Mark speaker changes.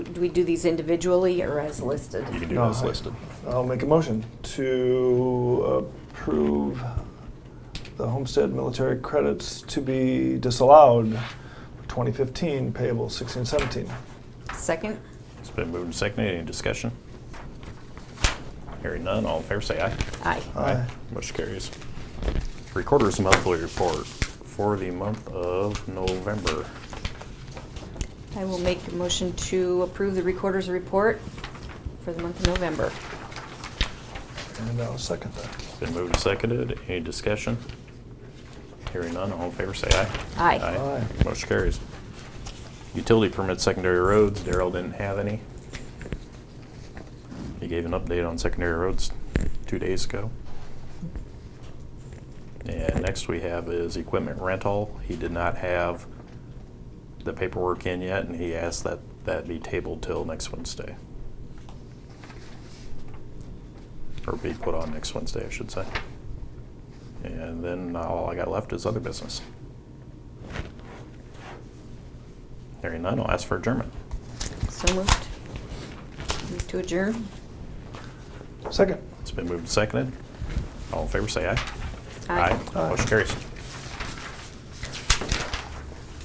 Speaker 1: Do we do these individually or as listed?
Speaker 2: You can do
Speaker 3: No,
Speaker 2: this
Speaker 3: I-
Speaker 2: listed.
Speaker 3: I'll make a motion to approve the homestead military credits to be disallowed for 2015 payable 16, 17.
Speaker 1: Second?
Speaker 2: It's been moved and seconded. Any discussion? Hearing none, all in favor say aye.
Speaker 1: Aye.
Speaker 3: Aye.
Speaker 2: Motion carries. Recorder's monthly report for the month of November.
Speaker 1: I will make a motion to approve the recorder's report for the month of November.
Speaker 3: And I'll second that.
Speaker 2: It's been moved and seconded. Any discussion? Hearing none, all in favor say aye.
Speaker 1: Aye.
Speaker 3: Aye.
Speaker 2: Motion carries. Utility permit secondary roads, Daryl didn't have any. He gave an update on secondary roads two days ago. And next we have is equipment rental. He did not have the paperwork in yet, and he asked that that be tabled till next Wednesday. Or be put on next Wednesday, I should say. And then all I got left is other business. Hearing none, I'll ask for adjournment.
Speaker 1: So moved. Move to adjourn?
Speaker 3: Second.
Speaker 2: It's been moved and seconded. All in favor, say aye.
Speaker 1: Aye.
Speaker 2: Motion carries.